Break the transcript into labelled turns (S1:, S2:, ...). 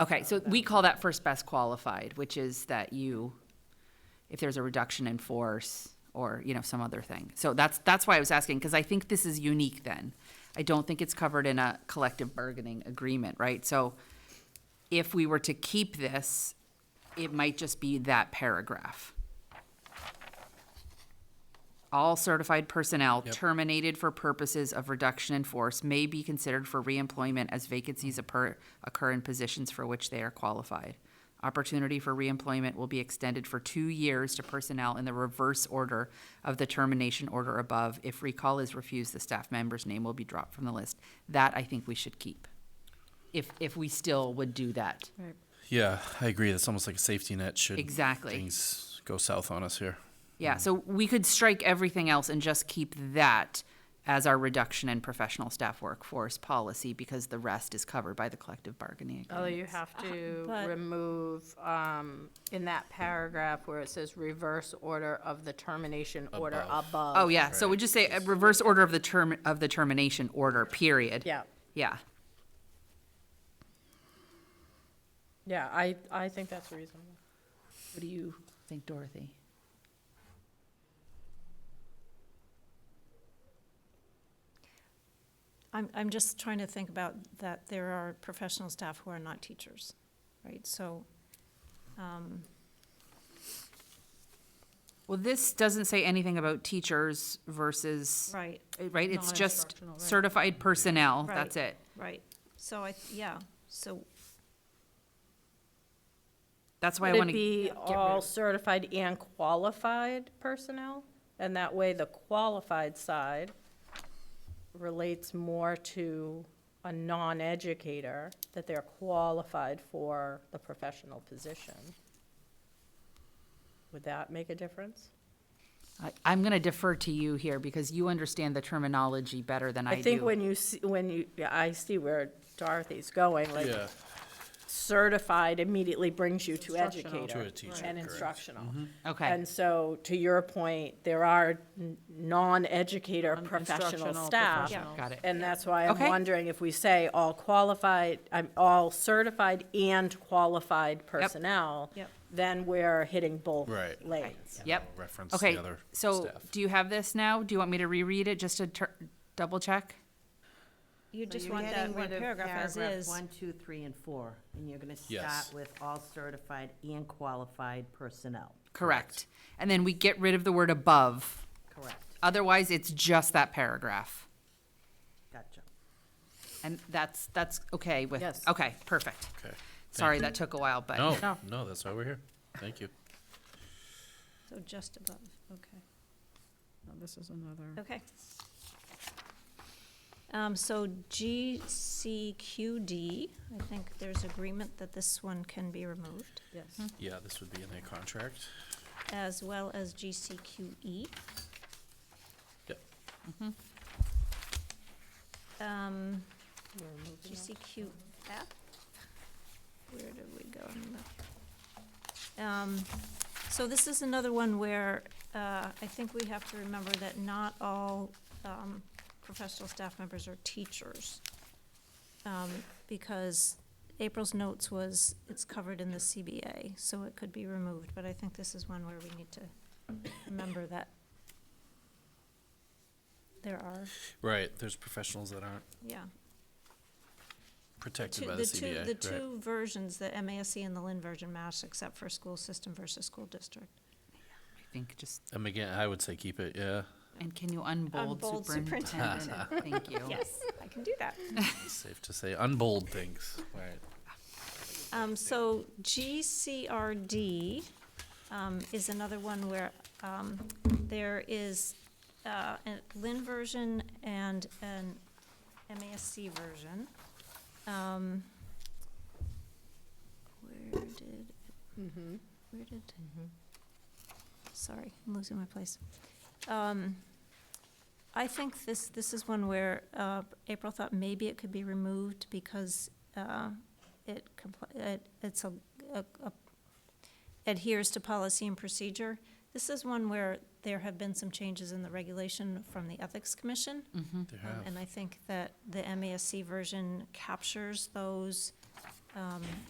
S1: Okay, so we call that first best qualified, which is that you, if there's a reduction in force or, you know, some other thing. So that's, that's why I was asking, because I think this is unique then. I don't think it's covered in a collective bargaining agreement, right? So if we were to keep this, it might just be that paragraph. All certified personnel terminated for purposes of reduction in force may be considered for reemployment as vacancies occur, occur in positions for which they are qualified. Opportunity for reemployment will be extended for two years to personnel in the reverse order of the termination order above. If recall is refused, the staff member's name will be dropped from the list. That I think we should keep. If, if we still would do that.
S2: Yeah, I agree. That's almost like a safety net should
S1: Exactly.
S2: things go south on us here.
S1: Yeah, so we could strike everything else and just keep that as our reduction in professional staff workforce policy because the rest is covered by the collective bargaining
S3: Although
S1: agreement.
S3: Oh, you have to
S4: but-
S3: remove, um, in that paragraph where it says reverse order of the termination order
S2: Above.
S3: above.
S1: Oh, yeah, so we just say a reverse order of the term, of the termination order, period.
S3: Yeah,
S1: Yeah,
S3: yeah, I, I think that's reasonable.
S1: what do you think, Dorothy?
S4: I'm, I'm just trying to think about that there are professional staff who are not teachers, right? So, um,
S1: Well, this doesn't say anything about teachers versus,
S4: right,
S1: right, it's just
S3: Non-instructional, right.
S1: certified personnel,
S4: Right.
S1: that's it.
S4: right. So I, yeah, so,
S1: That's why I
S3: Would it
S1: wanna,
S3: be
S4: rid
S3: all
S4: of-
S3: certified and qualified personnel? And that way, the qualified side relates more to a non-educator, that they're qualified for the professional position. Would that make a difference?
S1: I- I'm gonna defer to you here because you understand the terminology better than I do.
S3: I think when you, see- when you, yeah, I see where Dorothy's going, like
S2: Yeah,
S3: certified immediately brings you to educator.
S2: To a teacher,
S3: And
S2: correct. Mm-hmm.
S3: instructional.
S1: Mm-hmm. Okay.
S3: And so, to your point, there are n- non-educator professional
S5: Instructional
S3: staff.
S5: professionals.
S1: Got it.
S3: And that's why I'm
S1: Okay.
S3: wondering if we say all qualified, I'm all certified and qualified personnel,
S4: Yep.
S3: then we're hitting both
S2: Right.
S3: lanes.
S1: Yep.
S2: reference the
S1: Okay,
S2: other
S1: so
S2: staff.
S1: do you have this now? Do you want me to reread it just to tur- double check?
S4: you
S5: So
S4: just
S5: you're
S4: want that
S5: getting
S4: one
S5: rid of
S4: paragraph as
S5: paragraph
S4: is.
S5: One, two, three, and four, and you're gonna
S2: Yes.
S5: start with all certified and qualified personnel,
S1: Correct. And then we get rid of the word above.
S5: correct?
S1: Otherwise, it's just that paragraph.
S5: Gotcha.
S1: And that's, that's okay with,
S3: Yes.
S1: okay, perfect.
S2: Okay. Thank
S1: Sorry,
S2: you.
S1: that took a while, but.
S2: No, no, that's why we're here. Thank you.
S4: So just above, okay.
S5: Oh, This is another.
S4: Okay. Um, so GCQD, I think there's agreement that this one can be removed,
S3: Yes.
S2: Yeah, this would be in their contract.
S4: as well as GCQE.
S2: Yep.
S4: Um, GCQF, where did we go? on the- Um, so this is another one where, uh, I think we have to remember that not all, um, professional staff members are teachers. Um, because April's notes was, it's covered in the CBA, so it could be removed, but I think this is one where we need to remember that there are,
S2: Right, there's professionals that aren't
S4: yeah.
S2: protected
S4: two-
S2: by the
S4: the two,
S2: CBA,
S4: the
S2: right?
S4: two versions, the MASC and the Lynn version match, except for school system versus school district.
S1: I think just,
S2: Um, again, I would say keep it, yeah,
S1: and can you unbold
S4: Unbold
S1: superintendent? Thank you.
S4: I can do that.
S2: safe to say, unbold things, right?
S4: Um, so GCRD, um, is another one where, um, there is, uh, a Lynn version and an MASC version. Um, where did, where did, sorry, I'm losing my place. Um, I think this, this is one where, uh, April thought maybe it could be removed because, uh, it compli, it, it's a, a, a- adheres to policy and procedure. This is one where there have been some changes in the regulation from the Ethics Commission.
S1: Mm-hmm.
S2: They
S4: um,
S2: have.
S4: And I think that the MASC version captures those, um,